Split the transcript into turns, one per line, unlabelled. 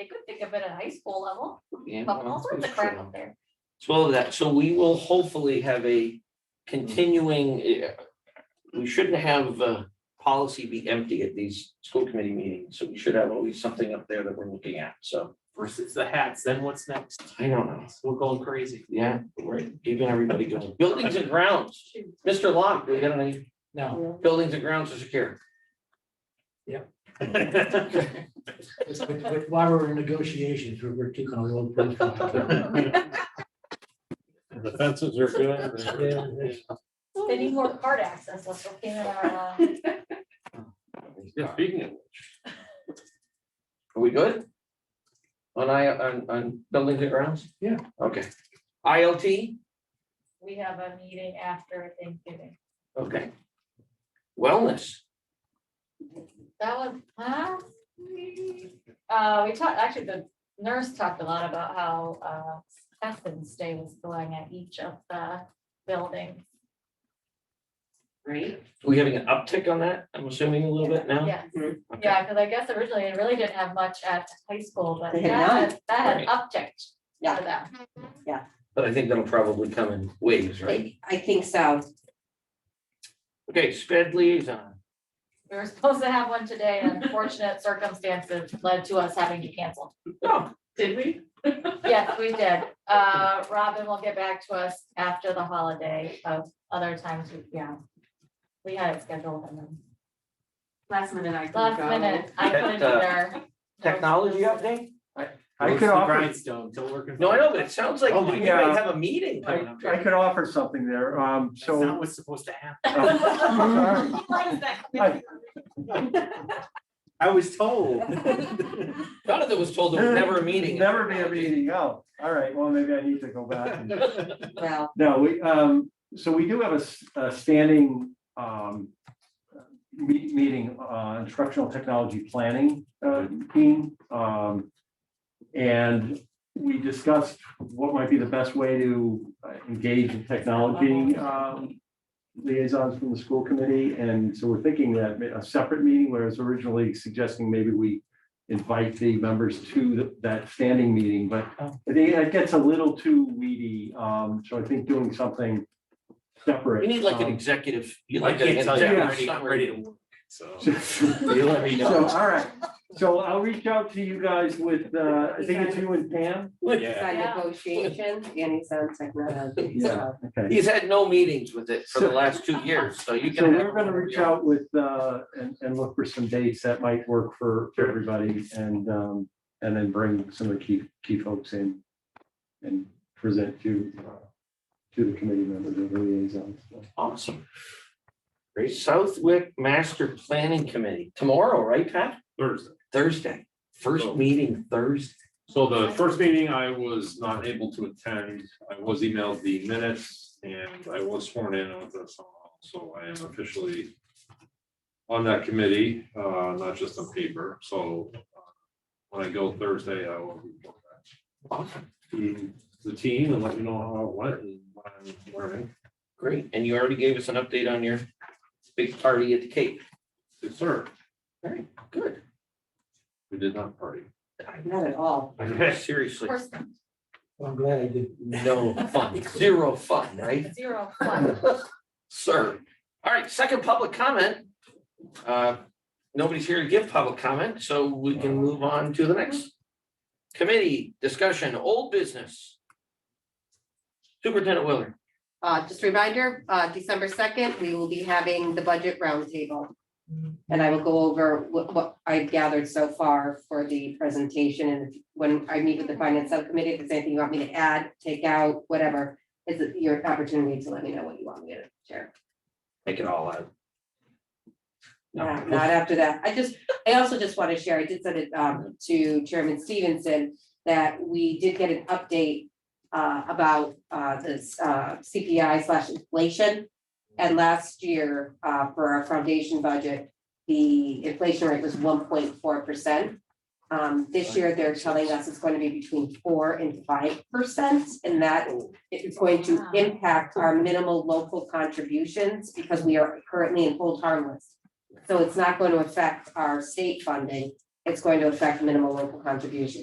think of it at high school level,
Yeah,
but
well,
all sorts of
for
crap
sure.
up there.
So all of that, so we will hopefully have a continuing, eh, we shouldn't have uh policy be empty at these school committee meetings, so we should have always something up there that we're looking at, so.
versus the hats, then what's next?
I don't know,
We're going crazy.
yeah, right, even everybody going, buildings and grounds, Mr. Locke, we got any
No.
buildings and grounds to secure?
But- but- but While we're in negotiations, we're, we're keeping a low profile.
The fences are good.
Yeah,
they're-
it's-
They need more card access, that's what came in our, uh,
Yeah, Speaking of,
Are we good? On I, on, on buildings and grounds?
Yeah.
Okay. ILT,
we have a meeting after Thanksgiving.
okay. Wellness,
That was last week. Uh, we talked, actually, the nurse talked a lot about how, uh, Athens Day was going at each of the buildings.
Right?
we having an uptick on that? I'm assuming a little bit now?
Yes.
Oh, Okay.
Yeah, because I guess originally it really didn't have much at high school, but
They had
that, that had
Right.
upticked
Yeah.
for them.
But I think that'll probably come in waves, right?
I I think so.
Okay, sped liaison.
We were supposed to have one today, and unfortunate circumstances led to us having to cancel.
Did we?
Yes, we did. Uh, Robin will get back to us after the holiday of other times, we- yeah. We had it scheduled and then
Last minute I could
last
go.
minute, I couldn't
That, uh,
either.
Technology update?
I
Roast
could
the
offer,
Grindstone, till we're.
No, I know, but it sounds like
Oh my
we might
God.
have a meeting coming
I,
up
I
here.
could offer something there, um,
That's not
so.
what's supposed to happen.
um,
He likes that.
I-
Oh.
I was told.
Jonathan was told there was never a meeting.
Never be a meeting, oh, all right, well, maybe I need to go back. and-
Well,
No, we, um, so we do have a, s- a standing, um, meet, meeting, uh, instructional technology planning, uh, team. Um, and we discussed what might be the best way to uh, engage in technology, um, liaisons from the school committee, and so we're thinking that a separate meeting, whereas originally suggesting maybe we invite the members to th- that standing meeting, but I think it gets a little too weedy, um, so I think doing something separate.
We need like an
um,
executive.
I
you like an
can't tell you, I'm
executive summary.
ready, I'm ready to work, so.
So,
You let me know.
all right, so I'll reach out to you guys with, uh, I think it's you and Pam.
Yeah.
on
Yeah.
negotiations, Danny's on technology.
Yeah. Okay,
He's had no meetings with it for the
So-
last two years, so you
so
can. have-
we're gonna reach out with, uh, and, and look for some dates that might work for, for everybody and, um, and then bring some of the key, key folks in and present to, uh, to the committee members and liaisons.
Awesome. Great. Southwick Master Planning Committee, tomorrow, right, Pat?
Thursday.
Thursday, first
Oh.
meeting Thursday.
So the first meeting I was not able to attend. I was emailed the minutes and I was sworn in on this. So I am officially on that committee, uh, not just on paper. So uh, when I go Thursday, I will report
Awesome.
back to the team and let you know how it went and what I'm learning.
Great. And you already gave us an update on your big party at the Cape.
Yes, sir.
Very good.
We did not party.
Not at all.
Seriously,
Person,
Well, I'm glad I did.
no fun, zero fun, right?
Zero fun.
Sir. All right, second public comment. Uh, Nobody's here to give public comment, so we can move on to the next committee discussion, old business. Superintendent Willard.
Uh, just a reminder, uh, December second, we will be having the budget roundtable. And I will go over what, what I've gathered so far for the presentation and when I meet with the finance subcommittee, if there's anything you want me to add, take out, whatever. It's your opportunity to let me know what you want me to share.
Take it all out.
Not not after that. I just, I also just want to share, I did send it um to Chairman Stevenson, that we did get an update uh about uh this uh CPI slash inflation. And last year, uh for our foundation budget, the inflation rate was one point four percent. Um this year, they're telling us it's going to be between four and five percent, and that it's going to
Wow.
impact our minimal local contributions because we are currently in hold harmless. So it's not going to affect our state funding, it's going to affect minimal local contributions.